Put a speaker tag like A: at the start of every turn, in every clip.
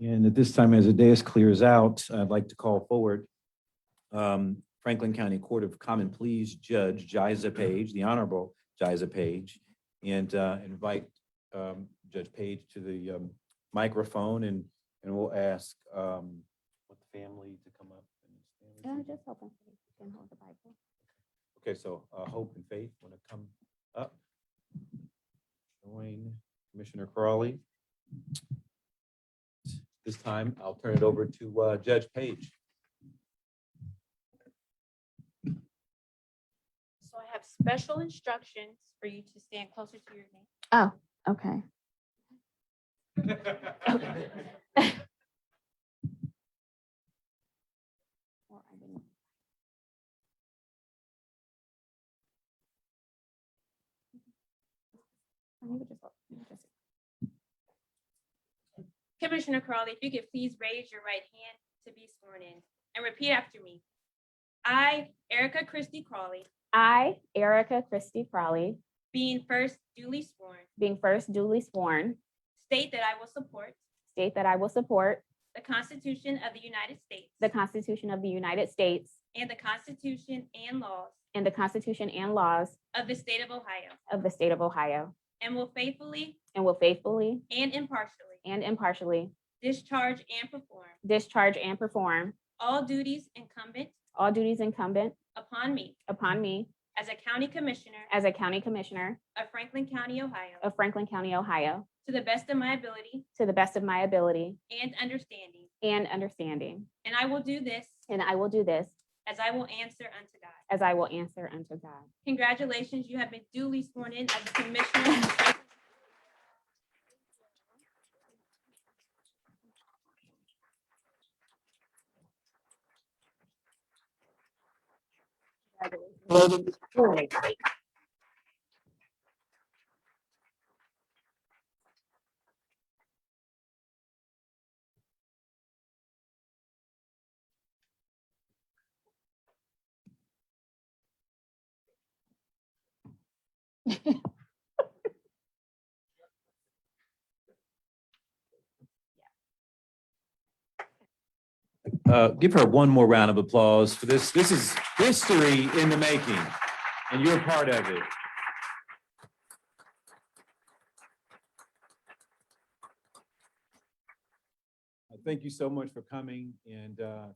A: And at this time, as the dais clears out, I'd like to call forward um, Franklin County Court of Common Pleas Judge Jiza Page, the Honorable Jiza Page, and uh, invite um, Judge Page to the um, microphone and, and we'll ask um, what the family to come up.
B: Yeah,
A: and
B: just open. so you can hold the Bible.
A: Okay, so uh, Hope and Faith want to come up. Join Commissioner Crawley. This time, I'll turn it over to uh, Judge Page.
C: So I have special instructions for you to stand closer to your name.
B: Okay. Or I didn't. Or you could just look, you could just-
C: Commissioner Crawley, if you could please raise your right hand to be sworn in and repeat after me. I, Erica Christie Crawley,
D: I, Erica Christie Crowley,
C: being first duly sworn,
D: being first duly sworn,
C: state that I will support
D: state that I will support
C: the Constitution of the United States
D: the Constitution of the United States
C: and the Constitution and laws
D: and the Constitution and laws
C: of the state of Ohio,
D: of the state of Ohio,
C: and will faithfully
D: and will faithfully
C: and impartially
D: and impartially
C: discharge and perform
D: discharge and perform
C: all duties incumbent
D: all duties incumbent
C: upon me
D: upon me
C: as a county commissioner
D: as a county commissioner
C: of Franklin County, Ohio,
D: of Franklin County, Ohio,
C: to the best of my ability
D: to the best of my ability
C: and understanding.
D: and understanding.
C: And I will do this
D: And I will do this
C: as I will answer unto God.
D: as I will answer unto God.
C: Congratulations, you have been duly sworn in as a commissioner.
A: Uh, Give her one more round of applause for this. This is history in the making, and you're a part of it. Uh, Thank you so much for coming, and, uh,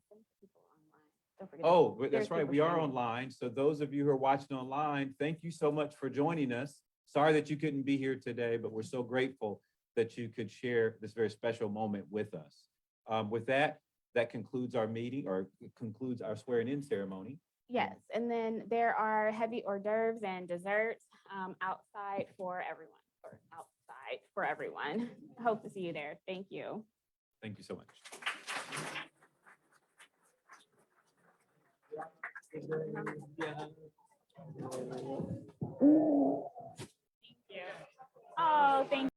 D: Don't forget to-
A: oh, but
D: There's
A: that's right,
D: people
A: we are
D: standing.
A: online. So those of you who are watching online, thank you so much for joining us. Sorry that you couldn't be here today, but we're so grateful that you could share this very special moment with us. Um, With that, that concludes our meeting, or concludes our swearing-in ceremony.
D: Yes, and then there are heavy hors d'oeuvres and desserts um, outside for everyone, or outside for everyone. Hope to see you there. Thank you.
A: Thank you so much.
D: Oh, thank